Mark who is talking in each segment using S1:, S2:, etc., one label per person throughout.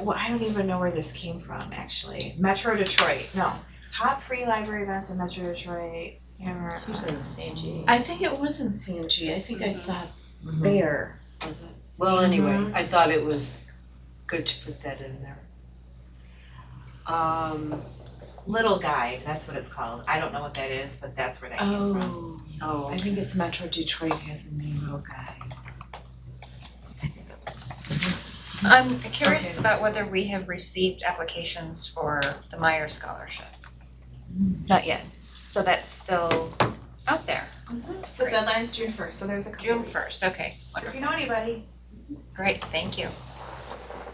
S1: well, I don't even know where this came from, actually. Metro Detroit, no, top free library events in Metro Detroit, camera.
S2: It's usually the same G. Mm-hmm.
S3: I think it was in CMG. I think I saw it
S4: Mhm.
S3: there.
S4: Was it? Well, anyway, I thought it was good to put that in there. Um,
S1: uh, Little Guide, that's what it's called. I don't know what that is, but that's where that came from.
S3: Oh,
S4: oh,
S3: I think it's Metro Detroit has a new little guy.
S2: I'm curious
S1: Okay.
S2: about whether we have received applications for the Meyer Scholarship. Not yet. So that's still out there,
S1: The deadline's June first, so there's a couple
S2: June
S1: weeks.
S2: first, okay,
S1: So if you know anybody,
S2: great, thank you.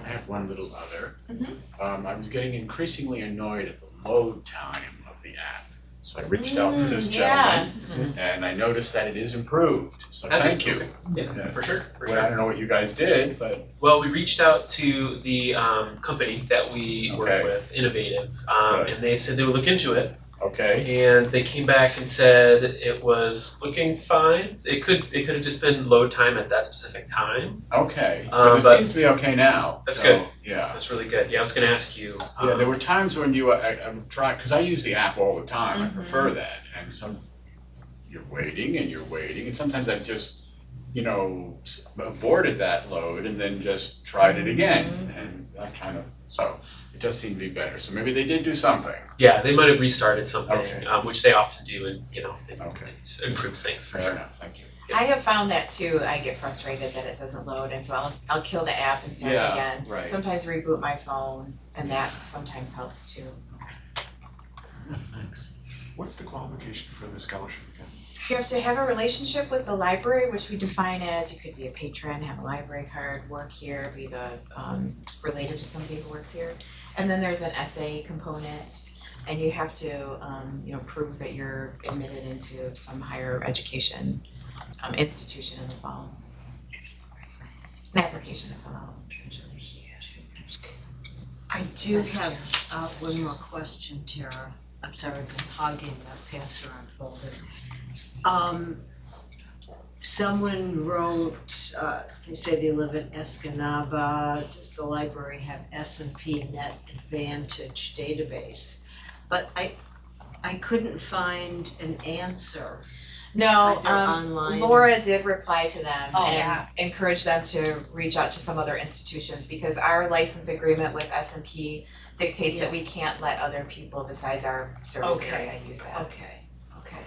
S5: I have one little other.
S1: Mhm.
S5: Um, I was getting increasingly annoyed at the load time of the app. So I reached out to this
S1: Mm, yeah.
S5: gentleman and I noticed that it is improved, so
S6: Has it?
S5: thank you.
S6: Okay. Yeah,
S5: Yes.
S6: for sure, for
S5: Well, I
S6: sure.
S5: don't know what you guys did, but
S6: Well, we reached out to the um, company that we
S5: Okay.
S6: work with, Innovative, um,
S5: Good.
S6: and they said they would look into it.
S5: okay,
S6: And they came back and said it was looking fine. It could it could have just been load time at that specific time.
S5: okay.
S6: Um,
S5: Because it
S6: but-
S5: seems to be okay now,
S6: That's
S5: so,
S6: good.
S5: yeah.
S6: That's really good. Yeah, I was gonna ask you. um,
S5: Yeah, there were times when you, uh, I, I would try, because I use the app all the time, I prefer that, and some, you're waiting and you're waiting, and sometimes I've just, you know, s- aborted that load and then just tried it again, and that kind of, so, it does seem to be better, so maybe they did do something.
S6: yeah, they might have restarted something,
S5: Okay.
S6: um, which they often do, and you know, it,
S5: Okay.
S6: it improves things for
S5: Fair
S6: sure.
S5: enough, thank you.
S6: Yeah.
S1: I have found that too, I get frustrated that it doesn't load and so I'll I'll kill the app and start it
S5: Yeah,
S1: again.
S5: right.
S1: Sometimes reboot my phone and that sometimes helps too.
S7: Thanks. What's the qualification for the scholarship again?
S1: You have to have a relationship with the library, which we define as you could be a patron, have a library card, work here, be the um related to somebody who works here. And then there's an essay component and you have to um you know prove that you're admitted into some higher education um institution in the fall. An application to fill out essentially.
S4: I do have uh one more question, Tara. I'm sorry, I've been hogging that pass around folder. Um, someone wrote, uh, they say they live in Escanaba, does the library have S and P Net Advantage database? But I, I couldn't find an answer
S1: No,
S4: either
S1: um
S4: online.
S1: Laura did reply to them
S4: Oh,
S1: and
S2: yeah.
S1: encouraged them to reach out to some other institutions because our license agreement with S and P dictates that we can't let other people besides our service
S4: Okay.
S1: area use that.
S4: Okay, okay.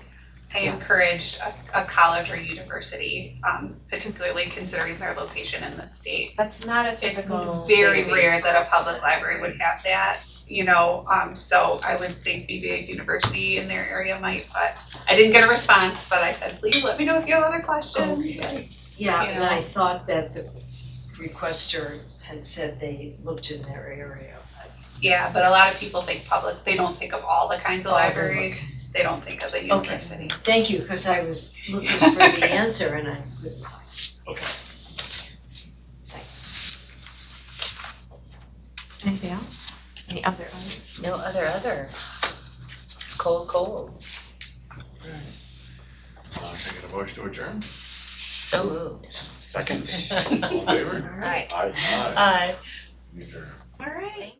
S8: I encouraged a, a college or university, um, particularly considering their location in the state.
S1: That's not a
S8: It's
S1: typical
S8: very
S1: database
S8: rare that
S1: for-
S8: a public library would have that, you know, um, so I would think maybe a university in their area might, but I didn't get a response, but I said, please let me know if you have other questions.
S4: Yeah,
S8: You
S4: and I
S8: know.
S4: thought that the requester had said they looked in their area, but
S8: Yeah, but a lot of people think public, they don't think of all the kinds of
S4: All the
S8: libraries, they don't think of the university.
S4: thank you, cause I was looking for the answer and I couldn't find it.
S6: Okay.
S4: Thanks.
S1: Anything else? Any other other?
S2: No other other. It's cold, cold.
S5: Uh, can I get a motion to adjourn?
S2: So moved.
S5: Second. All in favor?
S2: Right.
S5: Aye. Aye.
S2: Aye.
S5: Adjourn.
S1: All right.